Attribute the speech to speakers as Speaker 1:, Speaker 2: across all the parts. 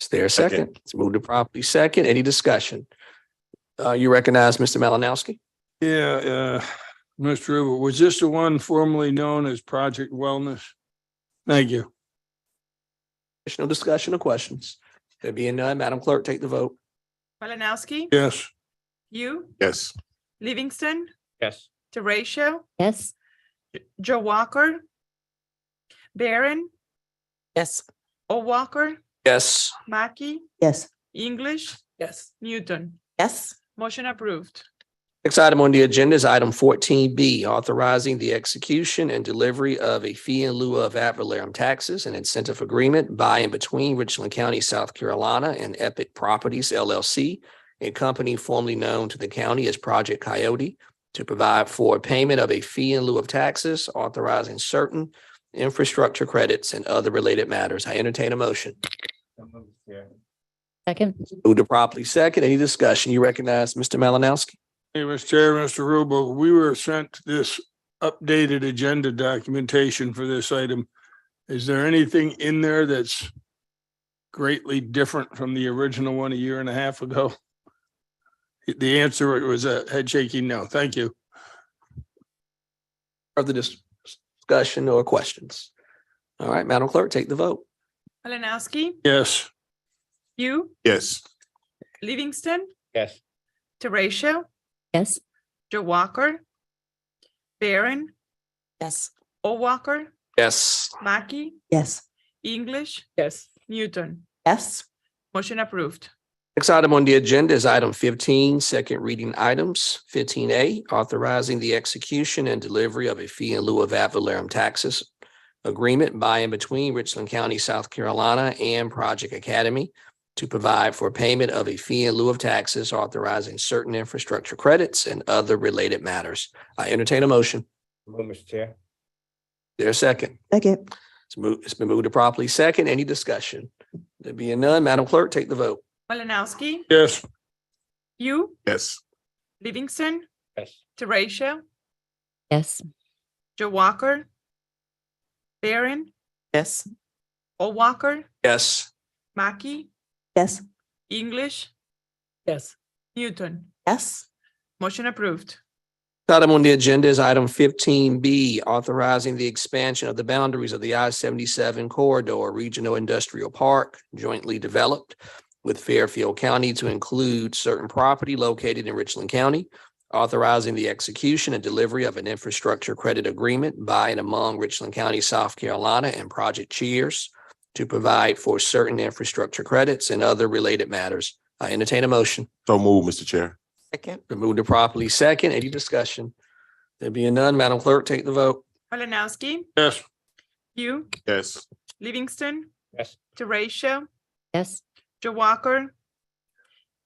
Speaker 1: Is there a second?
Speaker 2: Second.
Speaker 1: It's moved to properly second. Any discussion? Uh, you recognize Mr. Malinowski?
Speaker 3: Yeah, uh, Mr. Uber, was this the one formerly known as Project Wellness? Thank you.
Speaker 1: Additional discussion or questions? There being none, Madam Clerk, take the vote.
Speaker 4: Malinowski,
Speaker 3: Yes,
Speaker 4: you,
Speaker 2: Yes.
Speaker 4: Livingston,
Speaker 5: yes,
Speaker 4: Teresa,
Speaker 6: yes,
Speaker 4: Joe Walker, Barron,
Speaker 7: yes,
Speaker 4: O'Walker,
Speaker 1: Yes,
Speaker 4: Mackey,
Speaker 8: yes,
Speaker 4: English. Yes. Newton.
Speaker 7: yes,
Speaker 4: Motion approved.
Speaker 1: Next item on the agenda is item fourteen B, authorizing the execution and delivery of a fee in lieu of ad valorem taxes and incentive agreement by and between Richland County, South Carolina and Epic Properties LLC, a company formerly known to the county as Project Coyote, to provide for payment of a fee in lieu of taxes, authorizing certain infrastructure credits and other related matters. I entertain a motion.
Speaker 6: second,
Speaker 1: Moved to properly second. Any discussion? You recognize Mr. Malinowski?
Speaker 3: hey, Mr. Chair, Mr. Rubel, we were sent this updated agenda documentation for this item. Is there anything in there that's greatly different from the original one a year and a half ago? The answer was a head shaking no. Thank you.
Speaker 1: Further dis- discussion or questions? All right, Madam Clerk, take the vote.
Speaker 4: Malinowski,
Speaker 3: Yes,
Speaker 4: you,
Speaker 2: Yes.
Speaker 4: Livingston,
Speaker 5: yes,
Speaker 4: Teresa,
Speaker 6: yes,
Speaker 4: Joe Walker, Barron,
Speaker 7: yes,
Speaker 4: O'Walker,
Speaker 1: Yes.
Speaker 4: Mackey,
Speaker 8: yes,
Speaker 4: English. Yes. Newton.
Speaker 7: yes,
Speaker 4: Motion approved.
Speaker 1: Next item on the agenda is item 15, second reading items. Fifteen A, authorizing the execution and delivery of a fee in lieu of ad valorem taxes agreement by and between Richland County, South Carolina and Project Academy to provide for payment of a fee in lieu of taxes, authorizing certain infrastructure credits and other related matters. I entertain a motion.
Speaker 5: move, Mr. Chair,
Speaker 1: There a second?
Speaker 8: second,
Speaker 1: It's moved, it's been moved to properly second. Any discussion? There being none, Madam Clerk, take the vote.
Speaker 4: Malinowski,
Speaker 3: yes,
Speaker 4: you,
Speaker 2: Yes.
Speaker 4: Livingston,
Speaker 5: yes,
Speaker 4: Teresa,
Speaker 6: yes,
Speaker 4: Joe Walker, Barron,
Speaker 7: yes,
Speaker 4: O'Walker,
Speaker 1: Yes.
Speaker 4: Mackey,
Speaker 8: yes,
Speaker 4: English. Yes. Newton.
Speaker 7: yes,
Speaker 4: Motion approved.
Speaker 1: Item on the agenda is item fifteen B, authorizing the expansion of the boundaries of the I seventy-seven corridor regional industrial park jointly developed with Fairfield County to include certain property located in Richland County, authorizing the execution and delivery of an infrastructure credit agreement by and among Richland County, South Carolina and Project Cheers to provide for certain infrastructure credits and other related matters. I entertain a motion.
Speaker 2: So move, Mr. Chair.
Speaker 7: second,
Speaker 1: Been moved to properly second. Any discussion? There being none, Madam Clerk, take the vote.
Speaker 4: Malinowski,
Speaker 3: yes,
Speaker 4: you,
Speaker 2: Yes.
Speaker 4: Livingston,
Speaker 5: yes,
Speaker 4: Teresa,
Speaker 6: yes,
Speaker 4: Joe Walker,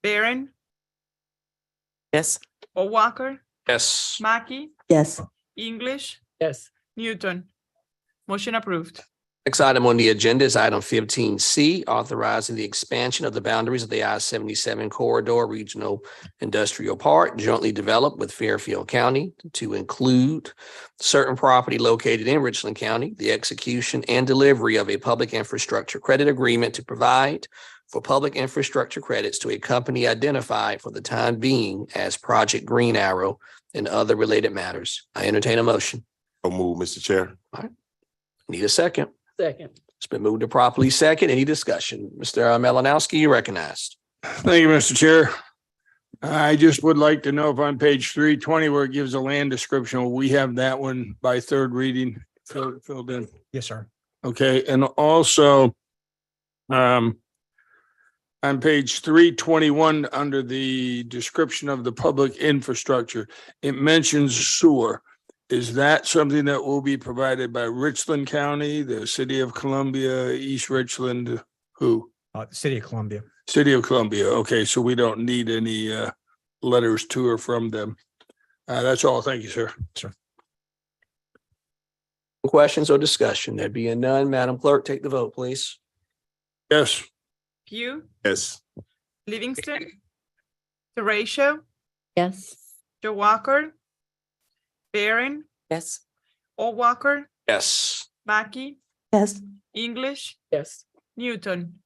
Speaker 4: Barron,
Speaker 7: yes,
Speaker 4: O'Walker,
Speaker 1: Yes.
Speaker 4: Mackey,
Speaker 8: yes,
Speaker 4: English. Yes. Newton. Motion approved.
Speaker 1: Next item on the agenda is item fifteen C, authorizing the expansion of the boundaries of the I seventy-seven corridor regional industrial park jointly developed with Fairfield County to include certain property located in Richland County, the execution and delivery of a public infrastructure credit agreement to provide for public infrastructure credits to a company identified for the time being as Project Green Arrow and other related matters. I entertain a motion.
Speaker 2: So move, Mr. Chair.
Speaker 1: Need a second? Second. It's been moved to properly second. Any discussion? Mr. Malinowski, you recognized.
Speaker 3: Thank you, Mr. Chair. I just would like to know if on page three twenty where it gives a land description, will we have that one by third reading filled, filled in.
Speaker 9: Yes, sir.
Speaker 3: Okay, and also um on page three twenty-one, under the description of the public infrastructure, it mentions sewer. Is that something that will be provided by Richland County, the city of Columbia, East Richland, who?
Speaker 9: Uh, City of Columbia.
Speaker 3: City of Columbia. Okay, so we don't need any uh letters to or from them. Uh, that's all. Thank you, sir.
Speaker 1: Questions or discussion? There being none, Madam Clerk, take the vote, please.
Speaker 3: Yes,
Speaker 4: You,
Speaker 2: Yes.
Speaker 4: Livingston, Teresa,
Speaker 6: yes,
Speaker 4: Joe Walker, Barron,
Speaker 7: yes,
Speaker 4: O'Walker,
Speaker 1: Yes.
Speaker 4: Mackey,
Speaker 8: yes,
Speaker 4: English. Yes. Newton.